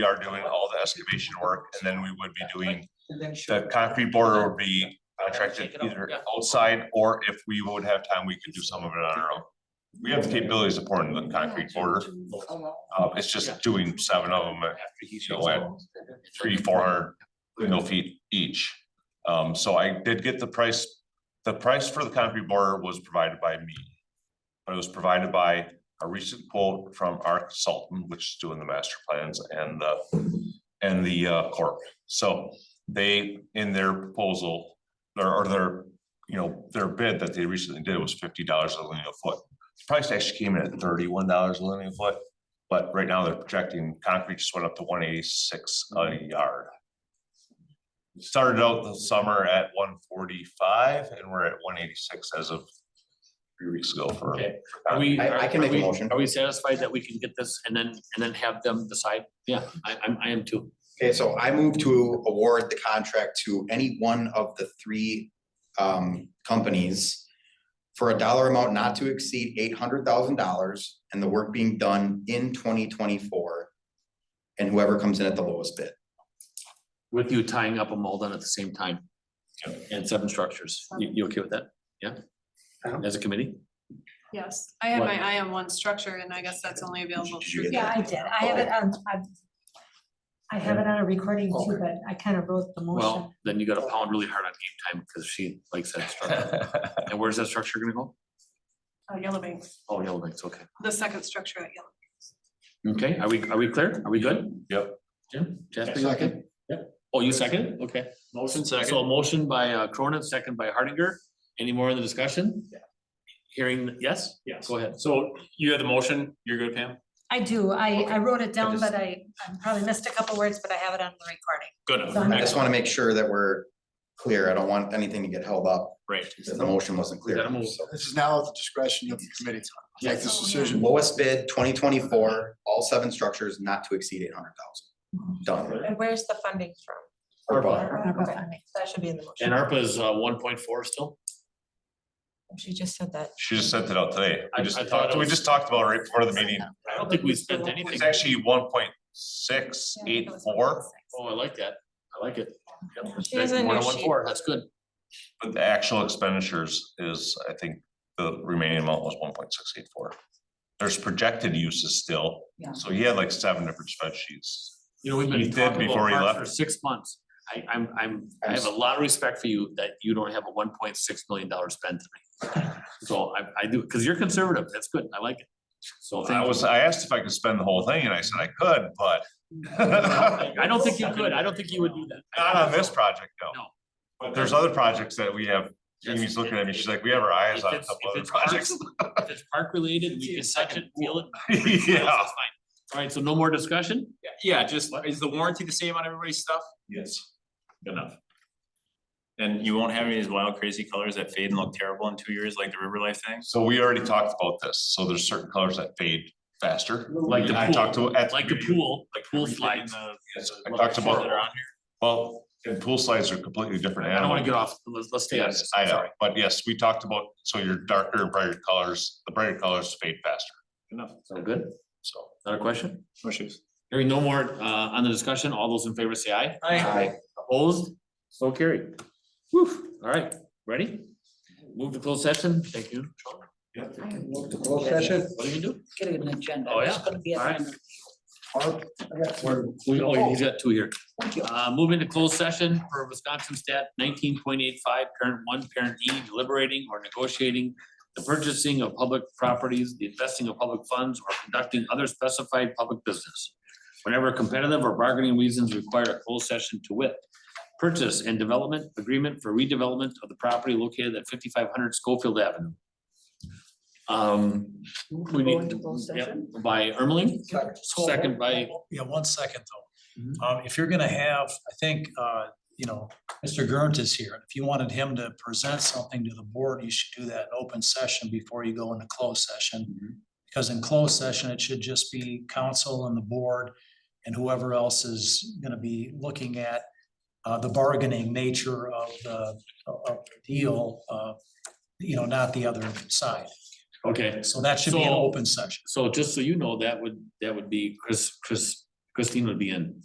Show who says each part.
Speaker 1: we are doing all the excavation work, and then we would be doing,
Speaker 2: And then show.
Speaker 1: the concrete border would be contracted either outside, or if we would have time, we could do some of it on our own. We have the capabilities of pouring the concrete border, uh, it's just doing seven of them at, you know, at three, four hundred windmill feet each. Um, so I did get the price, the price for the concrete border was provided by me. But it was provided by a recent quote from our consultant, which is doing the master plans and the, and the uh, corp. So they, in their proposal, their, or their, you know, their bid that they recently did was fifty dollars a linear foot. The Price actually came in at thirty-one dollars a linear foot, but right now they're projecting concrete just went up to one eighty-six a
Speaker 3: Mm-hmm.
Speaker 1: yard. Started out the summer at one forty-five and we're at one eighty-six as of three weeks ago for.
Speaker 3: Okay. Are we?
Speaker 4: I- I can
Speaker 3: are- are
Speaker 4: make a
Speaker 3: we-
Speaker 4: motion.
Speaker 3: Are we satisfied that we can get this and then, and then have them decide? Yeah, I, I'm, I am too.
Speaker 4: Okay, so I move to award the contract to any one of the three um companies. For a dollar amount not to exceed eight hundred thousand dollars and the work being done in twenty twenty-four. And whoever comes in at the lowest bid.
Speaker 3: With you tying up a mold on at the same time. And seven structures. You, you okay with that? Yeah? As a committee?
Speaker 5: Yes, I had
Speaker 3: What?
Speaker 5: my eye on one structure and I guess that's only available.
Speaker 4: Did you
Speaker 5: through-
Speaker 4: get
Speaker 6: Yeah, I did. I have it on, I've. I have it on a recording too, but I kind of wrote the motion.
Speaker 3: Well, then you gotta pound really hard on game time because she likes that structure. And where's that structure gonna go?
Speaker 5: Oh, Yellow Bank,
Speaker 3: Oh, Yellow Bank's, okay.
Speaker 5: the second structure at Yellow.
Speaker 4: Mm-hmm.
Speaker 3: Okay, are we, are we clear? Are we good?
Speaker 1: Yep.
Speaker 3: Jim? Jasper, you okay? Oh, you second? Okay. Motion second. So a motion by uh Cronin, second by Hardinger. Any more in the discussion? Yeah. Hearing, yes?
Speaker 7: Yes.
Speaker 3: Go ahead.
Speaker 7: So you had the motion, you're good, Pam?
Speaker 6: I do. I, I wrote it down,
Speaker 4: just-
Speaker 6: but I, I probably missed a couple words, but I have it on the recording.
Speaker 7: Good.
Speaker 4: I just
Speaker 7: Excellent.
Speaker 4: wanna make sure that we're clear. I don't want anything to get held up
Speaker 3: Right.
Speaker 4: because the motion wasn't clear.
Speaker 3: Gotta move.
Speaker 4: So,
Speaker 8: This is now at the discretion of the committee to
Speaker 4: Oh,
Speaker 8: make this decision.
Speaker 4: Lowest bid, twenty twenty-four, all seven structures not to exceed eight hundred thousand. Done.
Speaker 6: And where's the funding from?
Speaker 4: Or
Speaker 6: That should be in the motion.
Speaker 3: And ARPA is uh one point four still?
Speaker 6: She just said that.
Speaker 1: She just sent it out today.
Speaker 3: I-
Speaker 1: We just
Speaker 3: I thought
Speaker 1: talked,
Speaker 3: it
Speaker 1: we
Speaker 3: was-
Speaker 1: just talked about it right before the meeting.
Speaker 3: I don't think we spent anything.
Speaker 1: It's actually one point six eight four,
Speaker 3: Oh, I like that. I like it. Yep.
Speaker 5: She has a new
Speaker 3: More than one
Speaker 5: sheet.
Speaker 3: four, That's good.
Speaker 1: but the actual expenditures is, I think, the remaining amount was one point six eight four. There's projected uses still,
Speaker 2: Yeah.
Speaker 1: so he had like seven different spreadsheets.
Speaker 3: You know, we've
Speaker 1: He
Speaker 3: been
Speaker 1: did
Speaker 3: talking
Speaker 1: before he
Speaker 3: about parks
Speaker 1: left.
Speaker 3: for six months. I, I'm, I'm, I have a lot of respect for you that you don't have a one point six million dollar spend tonight. So I, I do, because you're conservative. That's good. I like it. So
Speaker 1: I
Speaker 3: thank you.
Speaker 1: was, I asked if I could spend the whole thing and I said I could, but not
Speaker 3: I don't think you could. I don't think you would do that.
Speaker 1: on this project, no.
Speaker 3: No.
Speaker 1: But there's other projects that we have, Jamie's looking at me, she's like, we have our eyes
Speaker 3: If
Speaker 1: on a
Speaker 3: it's-
Speaker 1: couple
Speaker 3: if
Speaker 1: other
Speaker 3: it's parks,
Speaker 1: projects.
Speaker 3: If it's park related, we can touch it, feel it.
Speaker 1: Yeah.
Speaker 3: That's fine. All right, so no more discussion?
Speaker 7: Yeah, just, is the warranty the same on everybody's stuff?
Speaker 1: Yes.
Speaker 7: Good enough. And you won't have any of these wild crazy colors that fade and look terrible in two years like the River Life thing?
Speaker 1: So we already talked about this, so there's certain colors that fade faster.
Speaker 3: Like the
Speaker 1: I talked
Speaker 3: pool,
Speaker 1: to, at.
Speaker 3: like the pool, like pool
Speaker 7: Everything in
Speaker 3: slides.
Speaker 7: the-
Speaker 1: Yes, I
Speaker 7: the
Speaker 1: talked
Speaker 7: pictures
Speaker 1: about-
Speaker 7: That are on here?
Speaker 1: Well, and pool slides are completely different
Speaker 3: I don't
Speaker 1: animal.
Speaker 3: wanna get off, let's, let's stay on
Speaker 1: Yes,
Speaker 3: this.
Speaker 1: I know,
Speaker 3: Sorry.
Speaker 1: but yes, we talked about, so your darker, brighter colors, the brighter colors fade faster,
Speaker 7: Good Enough.
Speaker 3: Sound good?
Speaker 1: so.
Speaker 3: Another question?
Speaker 7: No issues.
Speaker 3: Hearing no more, uh, on the discussion, all those in favor say aye.
Speaker 4: Aye.
Speaker 3: Opposed? So carried. Whew, all right, ready? Move to closed session, thank you. Sean.
Speaker 8: Closed session,
Speaker 3: What do you do?
Speaker 2: Get an agenda.
Speaker 3: Oh, yeah.
Speaker 2: It's gonna be a-
Speaker 3: All right.
Speaker 8: Barb, I got two.
Speaker 3: We, oh, he's got two here.
Speaker 2: Thank you.
Speaker 3: Uh, move into closed session for Wisconsin stat nineteen point eight five, parent one, parent E, deliberating or negotiating the purchasing of public properties, the investing of public funds, or conducting other specified public business. Whenever competitive or bargaining reasons require a closed session to wit. Purchase and development agreement for redevelopment of the property located at fifty-five hundred Schofield Avenue. Um, we
Speaker 2: Go
Speaker 3: need,
Speaker 2: into closed
Speaker 3: yep,
Speaker 2: session?
Speaker 3: by Ermeling,
Speaker 8: Second.
Speaker 3: second Mm-hmm. by
Speaker 9: Yeah, one second though. Um, if you're gonna have, I think, uh, you know, Mr. Gernt is here. If you wanted him to present something to the board, you should do that in open session before you go into closed
Speaker 3: Mm-hmm.
Speaker 9: session. Because in closed session, it should just be council and the board and whoever else is gonna be looking at uh, the bargaining nature of the, of the deal, uh, you know, not the other side.
Speaker 3: okay.
Speaker 9: So that should be an
Speaker 3: So-
Speaker 9: open session.
Speaker 3: So just so you know, that would, that would be Chris, Chris Christine would be in.